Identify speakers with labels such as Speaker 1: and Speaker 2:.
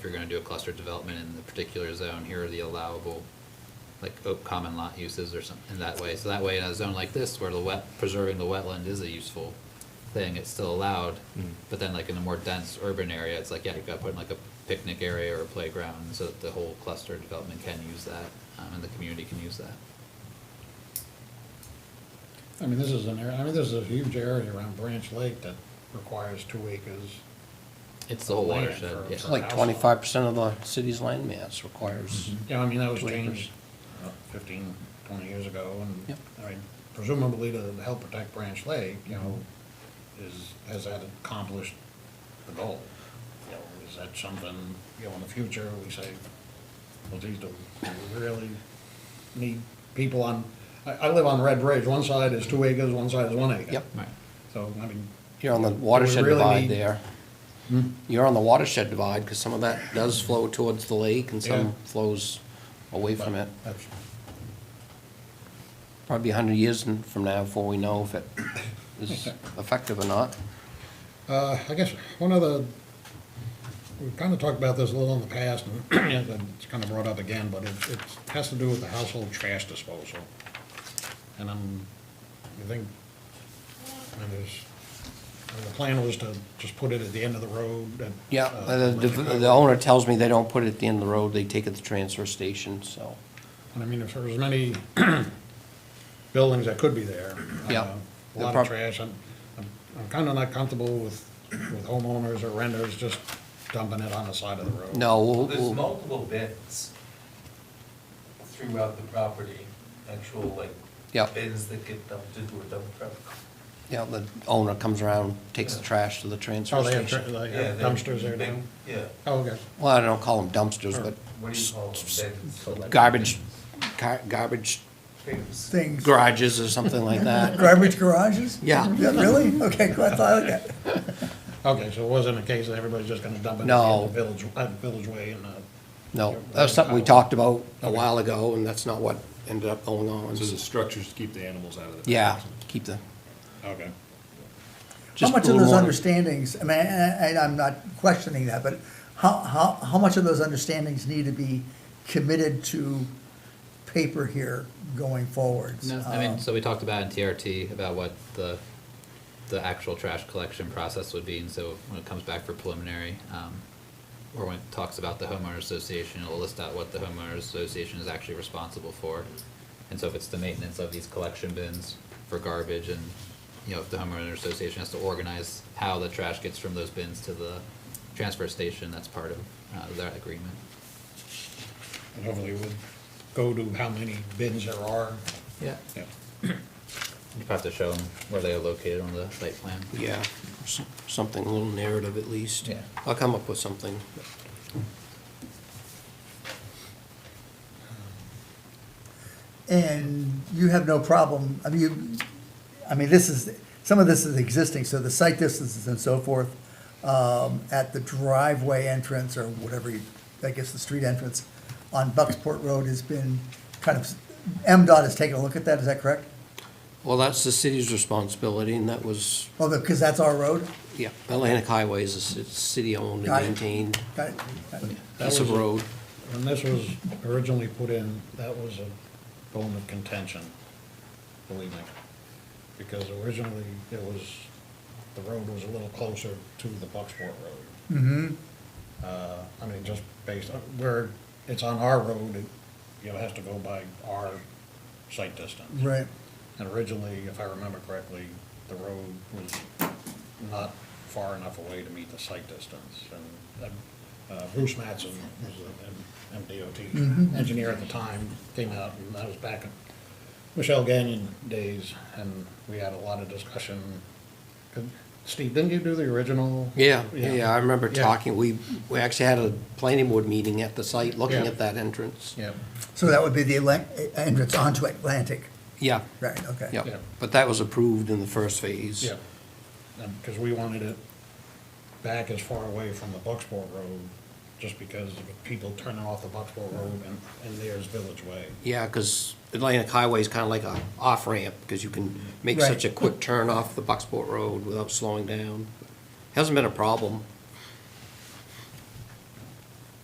Speaker 1: if you're gonna do a cluster development in the particular zone, here are the allowable, like, o- common lot uses or something, in that way. So that way, in a zone like this, where the wet, preserving the wetland is a useful thing, it's still allowed. But then like in a more dense urban area, it's like, yeah, you gotta put in like a picnic area or a playground, so that the whole cluster development can use that, um, and the community can use that.
Speaker 2: I mean, this is an area, I mean, this is a huge area around Branch Lake that requires two acres.
Speaker 1: It's the whole
Speaker 2: Land
Speaker 1: watershed,
Speaker 2: for-
Speaker 1: yeah.
Speaker 2: for-
Speaker 3: Like twenty-five percent of the city's land mass requires,
Speaker 2: Yeah, I mean, that was
Speaker 3: Two acres.
Speaker 2: changed uh, fifteen, twenty years ago, and,
Speaker 3: Yep.
Speaker 2: I mean, presumably to help protect Branch Lake, you know, is, has that accomplished the goal? You know, is that something, you know, in the future, we say, well, geez, do we really need people on, I, I live on Red Bridge, one side is two acres, one side is one acre.
Speaker 3: Yep.
Speaker 1: Right.
Speaker 2: So, I mean,
Speaker 3: you're on the watershed
Speaker 2: really
Speaker 3: divide
Speaker 2: need- Hmm?
Speaker 3: there. You're on the watershed divide, because some of that does flow towards the lake and
Speaker 2: Yeah.
Speaker 3: some flows away from it.
Speaker 2: that's,
Speaker 3: Probably a hundred years in- from now before we know if it is effective or not.
Speaker 2: Uh, I guess one other, we've kind of talked about this a little in the past, and yeah, but it's kind of brought up again, but it, it has to do with the household trash disposal. And I'm, I think, and there's, and the plan was to just put it at the end of the road and.
Speaker 3: Yeah,
Speaker 2: uh,
Speaker 3: the, the- the owner tells me they don't put it at the end of the road, they take it to the transfer station, so.
Speaker 2: And I mean, if there was many buildings that could be there.
Speaker 3: Yeah.
Speaker 2: uh, A lot of trash, I'm, I'm, I'm kind of not comfortable with, with homeowners or renters just dumping it on the side of the road.
Speaker 3: No, we'll,
Speaker 4: There's
Speaker 3: we'll,
Speaker 4: multiple bins throughout the property, actual like
Speaker 3: Yeah.
Speaker 4: bins that get dumped into a dump truck.
Speaker 3: yeah, the owner comes around, takes the
Speaker 4: Yeah.
Speaker 3: trash to the transfer
Speaker 2: Oh, they have tra-
Speaker 3: station.
Speaker 2: they
Speaker 4: Yeah,
Speaker 2: have
Speaker 4: they're
Speaker 2: dumpsters there
Speaker 4: big-
Speaker 2: now?
Speaker 4: Yeah,
Speaker 2: Oh, okay.
Speaker 3: Well, I don't call them dumpsters,
Speaker 2: Or
Speaker 3: but
Speaker 4: what do you call them, bins?
Speaker 3: garbage, gar- garbage
Speaker 4: Bins.
Speaker 5: things.
Speaker 3: garages or something like that.
Speaker 5: Garbage garages?
Speaker 3: Yeah.
Speaker 5: Really? Okay, cool, I thought, okay.
Speaker 2: Okay, so it wasn't a case that everybody's just gonna dump it in
Speaker 3: No.
Speaker 2: the village, uh, village way and, uh,
Speaker 3: No, that was something we talked about a while ago, and that's not what ended up going on.
Speaker 6: So the structures to keep the animals out of the.
Speaker 3: Yeah, keep the,
Speaker 2: okay.
Speaker 5: How
Speaker 3: just a
Speaker 5: much of
Speaker 3: little
Speaker 5: those
Speaker 3: more-
Speaker 5: understandings, I mean, and I'm not questioning that, but how, how, how much of those understandings need to be committed to paper here going forwards?
Speaker 1: No, I mean,
Speaker 5: Um,
Speaker 1: so we talked about in TRT about what the, the actual trash collection process would be, and so when it comes back for preliminary, um, or when it talks about the homeowners association, it'll list out what the homeowners association is actually responsible for. And so if it's the maintenance of these collection bins for garbage and, you know, if the homeowner association has to organize how the trash gets from those bins to the transfer station, that's part of, uh, that agreement.
Speaker 2: And hopefully we'll go to how many bins there are.
Speaker 1: Yeah.
Speaker 2: Yeah.
Speaker 1: You have to show them where they are located on the site plan.
Speaker 3: yeah, s- something, a little narrative at least.
Speaker 1: Yeah.
Speaker 3: I'll come up with something.
Speaker 5: And you have no problem, I mean, you, I mean, this is, some of this is existing, so the site distances and so forth, um, at the driveway entrance or whatever you, I guess the street entrance on Bucksport Road has been kind of, MDOT has taken a look at that, is that correct?
Speaker 3: Well, that's the city's responsibility, and that was,
Speaker 5: Oh, because that's our road?
Speaker 3: yeah, Atlantic Highway is a ci- city-owned and
Speaker 5: Got it.
Speaker 3: maintained
Speaker 5: Got it? Got it.
Speaker 3: piece of
Speaker 2: was a-
Speaker 3: road.
Speaker 2: When this was originally put in, that was a bone of contention, believe me. Because originally it was, the road was a little closer to the Bucksport Road. Mm-hmm. Uh, I mean, just based on where it's on our road, it, you know, has to go by our site distance.
Speaker 5: Right,
Speaker 2: And originally, if I remember correctly, the road was not far enough away to meet the site distance. And uh, Bruce Mattson, who's an MDOT engineer at the time, came out, and that was back in Michelle Gagnon days, and we had a lot of discussion. Could- Steve, didn't you do the original?
Speaker 3: Yeah, yeah, I remember
Speaker 2: Yeah.
Speaker 3: talking, we, we actually had a planning board meeting at the site, looking
Speaker 2: Yeah.
Speaker 3: at that entrance.
Speaker 2: Yeah,
Speaker 5: so that would be the Atlan- entrance onto Atlantic,
Speaker 3: Yeah,
Speaker 5: right, okay.
Speaker 3: yeah,
Speaker 2: Yeah.
Speaker 3: but that was approved in the first phase.
Speaker 2: yeah. Because we wanted it back as far away from the Bucksport Road, just because of people turning off the Bucksport Road and, and there's Village Way.
Speaker 3: Yeah, because Atlantic Highway is kind of like a off-ramp, because you can make
Speaker 5: Right.
Speaker 3: such a quick turn off the Bucksport Road without slowing down. Hasn't been a problem